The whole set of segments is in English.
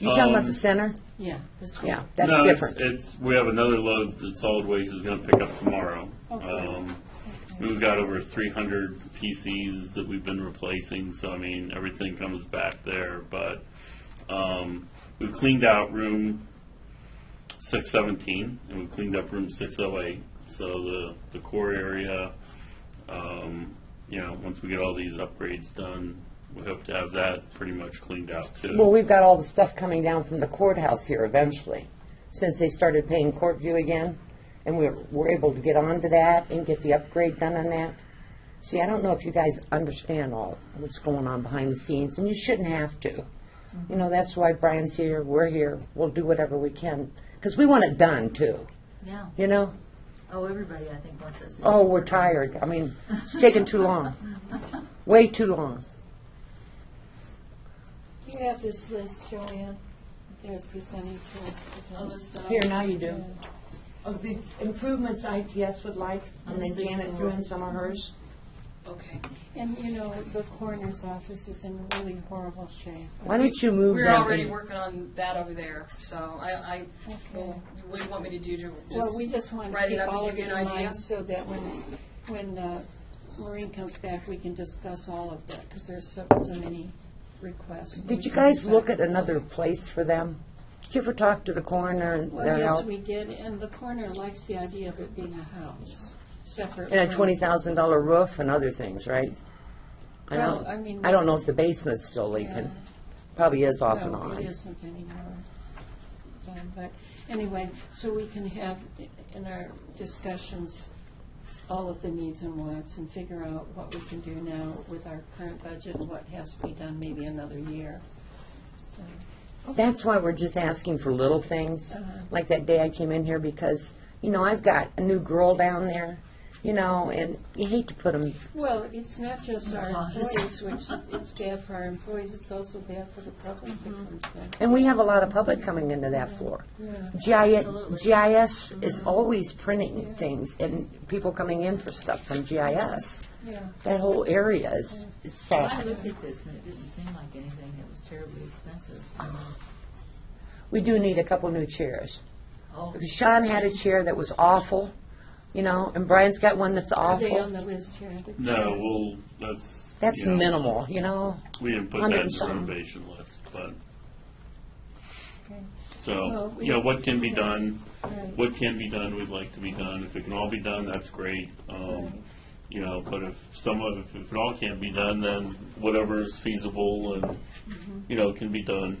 You talking about the center? Yeah. this- Yeah, that's Um, No, it's- different. It's, we have another load that solid waste is gonna pick up tomorrow. Um, We've got over three hundred PCs that we've been replacing, so I mean, everything comes back there, but, um, we've cleaned out room six seventeen, and we've cleaned up room six oh eight, so the, the core area, um, you know, once we get all these upgrades done, we hope to have that pretty much cleaned out too. Well, we've got all the stuff coming down from the courthouse here eventually, since they started paying court view again, and we're, we're able to get onto that and get the upgrade done on that. See, I don't know if you guys understand all what's going on behind the scenes, and you shouldn't have to. You know, that's why Brian's here, we're here, we'll do whatever we can, because we want it done too, Yeah. you know? Oh, everybody, I think, wants this. Oh, we're tired, I mean, it's taking too long, way too long. Do you have this list, Joanne? They're presenting to us. All this stuff. Here, now you do. Of Oh, the improvements ITS would like, and then Janet threw in some of hers. Okay. And, you know, the coroner's office is in really horrible shape. Why don't you move We're them already in? working on that over there, so I, I, Okay. what do you want me to do to Well, we just just want to write it keep up all and of give you it an in idea? mind so that when, when uh, Maureen comes back, we can discuss all of that, because there's so, so many requests. Did you guys look at another place for them? Did you ever talk to the coroner and Well, their yes, help? we did, and the coroner likes the idea of it being a house, separate. And a from- twenty thousand dollar roof and other things, right? I Well, don't, I mean, I don't know if the basement's still leaking. Probably is off and No, it on. isn't anymore. Um, But anyway, so we can have in our discussions all of the needs and wants and figure out what we can do now with our current budget and what has to be done maybe another year. So, That's why we're just asking for little Uh-huh. things. Like that day I came in here because, you know, I've got a new girl down there, you know, and you hate to put them Well, it's not just our Closet. employees, which is- it's bad for our employees, it's also bad for the public that comes in. And we have a lot of public coming into that floor. GIS, Absolutely. GIS is always printing things and people coming in for stuff from GIS. Yeah. That whole area is is Well, I sad. looked at this, and it didn't seem like anything that was terribly expensive. Oh, We do need a couple new chairs. Oh, Because Sean had a chair that was awful, you know, and Brian's got one that's Are they on awful. the list here? The No, cleaners? well, that's. That's you know, minimal, you know? We didn't put Hundred that in and the something. renovation list, but, Okay. Well, so, we- you know, what can be done, Right. what can be done, we'd like to be done. If it can all be done, that's great. Right. Um, you know, but if some of, if- if it all can't be done, then whatever is feasible and, Mm-hmm. you know, can be done,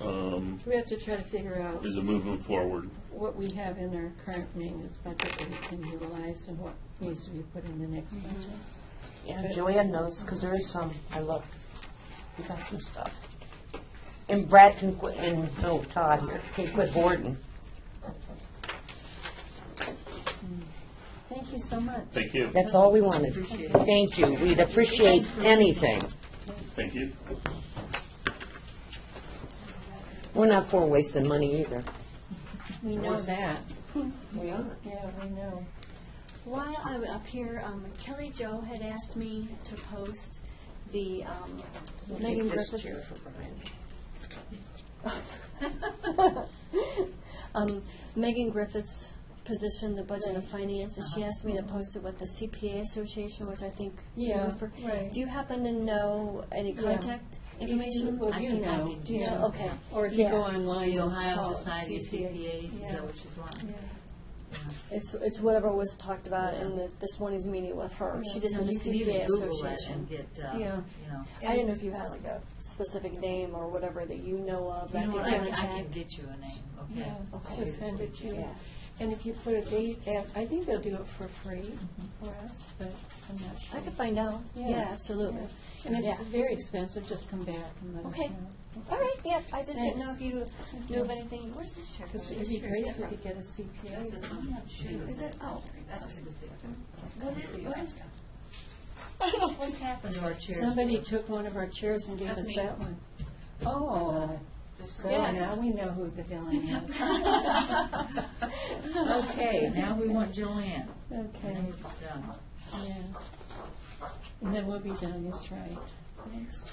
um, We have to try to figure out is a movement forward. what we have in our current maintenance budget that we can utilize and what needs to be put in the next Mm-hmm. budget. Yeah, Joanne knows, because there is some, I look, we got some stuff. And Brad can quit, and, oh, Todd here, can quit boarding. Thank you so much. Thank you. That's all we wanted. Thank you. We'd appreciate anything. Thank you. We're not for wasting money either. We know that. We are. Yeah, we know. While I'm up here, um, Kelly Jo had asked me to post the um, Megan Griffiths. um, Megan Griffith's position, the budget of finance, and she asked me to post it with the CPA Association, which I think you Yeah, were for. right. Do you happen to know any Yeah. contact If you- information? Well, you can- I know. can you do know. that. Okay. Or if you Yeah. go online. The and Ohio call Society of CCA. CPAs, is Yeah. that what you want? Yeah. It's it's whatever was talked about in the, this morning's meeting with her. She just No, had the you can even CPA Google it Association. and get, uh, you Yeah. know. I didn't know if you had like a specific name or whatever that you know of You that know could what, I can, I can contact. get you a name, okay? Yeah, Okay. just send it to you. Yeah. And if you put a date, at- I think they'll do it for free for us, but I'm not I sure. could find out. Yeah. Yeah, absolutely. And if it's Yeah. very expensive, just come back and let us Okay. know. All right. Yeah, I just didn't know Thanks. if you knew of anything. Where's this check? Because it'd be great if we could get a That's CPA. this one. Shoot. Is it? Oh, That's what it is. What is- what is- I don't know what's happened to our chairs. Oh, Somebody took one of our chairs and gave That's us me. that one. Oh, girl, now we know who the villain is. Okay, now we want Joanne, and Okay, then we're done. yeah. And then we'll be done, that's right. Thanks.